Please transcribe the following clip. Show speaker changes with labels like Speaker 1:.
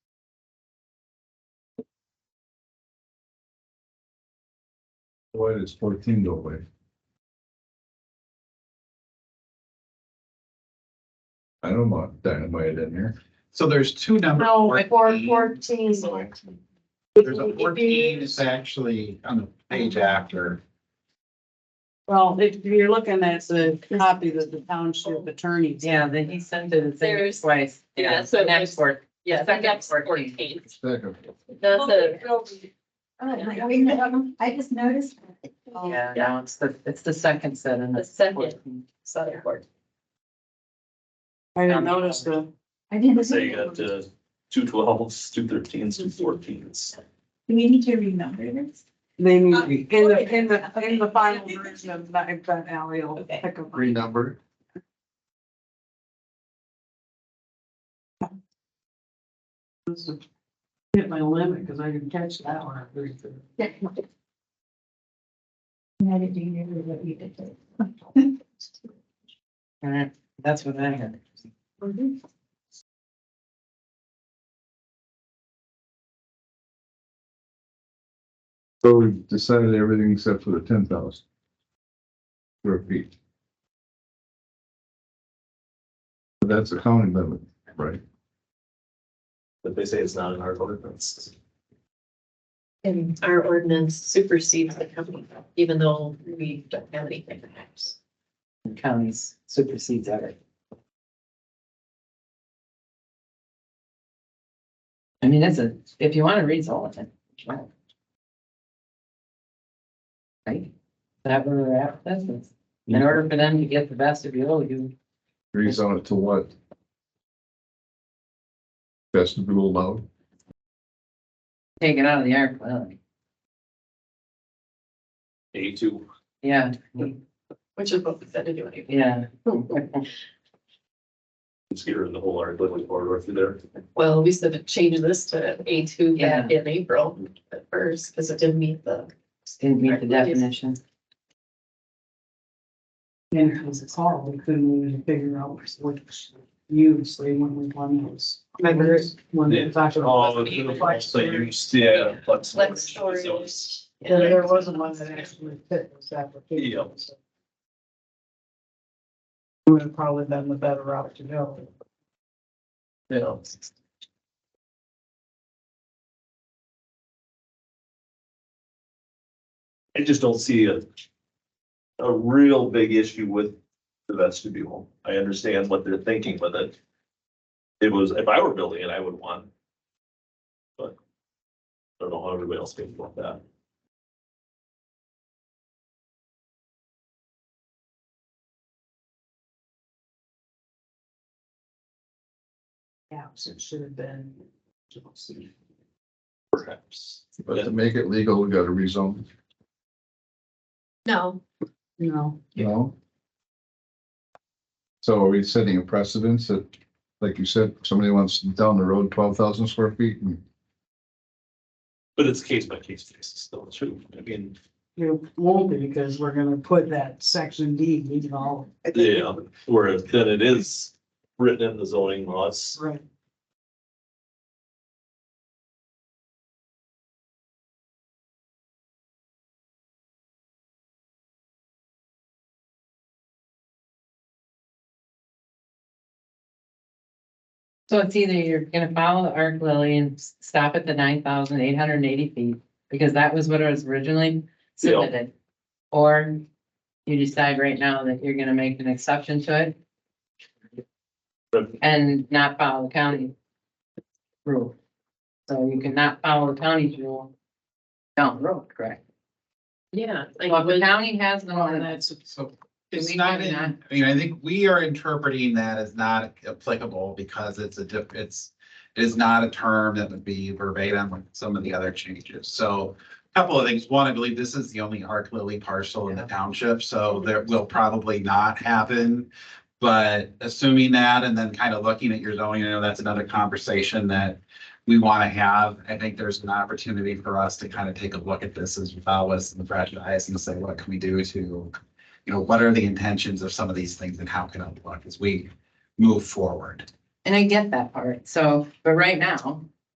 Speaker 1: Why does fourteen go away? I don't want dynamite in here.
Speaker 2: So there's two numbers.
Speaker 3: No, four,
Speaker 2: 14.
Speaker 3: fourteen.
Speaker 2: There's a fourteen, it's actually on the page after.
Speaker 4: Well, if you're looking at the copy that the township attorney.
Speaker 5: Yeah, then he sent it the same
Speaker 6: There's-
Speaker 5: twice.
Speaker 6: yeah,
Speaker 5: Yeah,
Speaker 6: so
Speaker 5: the next
Speaker 6: there's-
Speaker 5: word.
Speaker 6: Yeah,
Speaker 5: Second
Speaker 6: that's
Speaker 5: 14.
Speaker 6: fourteen.
Speaker 1: Second,
Speaker 6: That's a,
Speaker 3: I just noticed.
Speaker 5: Yeah, now it's the, it's the second set and
Speaker 6: Oh. The
Speaker 5: the
Speaker 6: second.
Speaker 5: fourteen.
Speaker 6: Southern Board.
Speaker 4: I didn't notice the.
Speaker 3: I didn't.
Speaker 7: Say you got uh, two twelves, two thirteens, two fourteens.
Speaker 3: Do we need to remember this?
Speaker 4: They need, in the, in the, in the final version of that, if that alley will
Speaker 6: Okay.
Speaker 4: pick up.
Speaker 2: Renumber.
Speaker 4: Hit my limit, cause I didn't catch that one.
Speaker 3: I didn't remember what you did.
Speaker 5: All right, that's what I had.
Speaker 1: so we've decided everything except for the ten thousand. Square feet. But That's a county limit, right?
Speaker 7: But they say it's not in our ordinance.
Speaker 6: And our ordinance supersedes the company, even though we don't have anything perhaps.
Speaker 5: The Counties supersedes everything. I mean, it's a, if you want to read all of it. wow. Right? Is That where they're at, that's, it. in order for them to get the vestibule, you,
Speaker 1: Agrees on it to what? Vestibule allowed,
Speaker 5: take it out of the air, well,
Speaker 7: A two.
Speaker 5: yeah,
Speaker 6: Which is what we said to do anyway.
Speaker 5: yeah.
Speaker 7: It's here in the whole art living corridor through there.
Speaker 6: Well, we said to change this to A two back in April at first, because it didn't meet the.
Speaker 5: Didn't meet the definition.
Speaker 4: And it was a call, we couldn't even figure out what use they went with one use.
Speaker 6: Remember,
Speaker 4: When they talked about.
Speaker 6: the- the
Speaker 7: flex
Speaker 4: that you
Speaker 7: yeah, flex.
Speaker 6: Flex storage.
Speaker 4: Yeah, there wasn't one that actually fit this application.
Speaker 7: Yep.
Speaker 4: so. It Would have probably been the better route to go.
Speaker 7: Yeah. I just don't see a, a real big issue with the vestibule. I understand what they're thinking with it. It was, if I were building it, I would want. But I don't know how everybody else thinks about that.
Speaker 4: Yeah, so it should have been.
Speaker 7: Perhaps.
Speaker 1: but to make it legal, we gotta rezone,
Speaker 6: No,
Speaker 4: No,
Speaker 1: you know? So are we setting a precedence that, like you said, somebody wants down the road twelve thousand square feet and
Speaker 7: But it's case by case basis still too. I mean,
Speaker 4: it won't be because we're gonna put that section D, leave it all.
Speaker 7: yeah, whereas then it is written in the zoning laws.
Speaker 4: Right.
Speaker 5: So it's either you're gonna follow the arc lily and s- stop at the nine thousand eight hundred and eighty feet, because that was what it was originally
Speaker 7: Yeah.
Speaker 5: submitted. Or you decide right now that you're gonna make an exception to it.
Speaker 7: But-
Speaker 5: And not follow the county rule. So you cannot follow the county's rule down the road, correct?
Speaker 6: yeah. like,
Speaker 5: Well, if the
Speaker 6: when-
Speaker 5: county has the one
Speaker 4: And
Speaker 5: that's,
Speaker 4: that's, so,
Speaker 2: It's
Speaker 5: we
Speaker 2: not
Speaker 5: do
Speaker 2: in, I
Speaker 5: that?
Speaker 2: mean, I think we are interpreting that as not applicable because it's a diff, it's, it is not a term that would be verbatim with some of the other changes. So a couple of things. One, I believe this is the only Arc Lily parcel in the township, so that will probably not happen. But assuming that and then kind of looking at your zoning, I know that's another conversation that we want to have. I think there's an opportunity for us to kind of take a look at this as well as the franchise and say, what can we do to you know, what are the intentions of some of these things and how can it look as we move forward?
Speaker 5: and I get that part, so, but right now,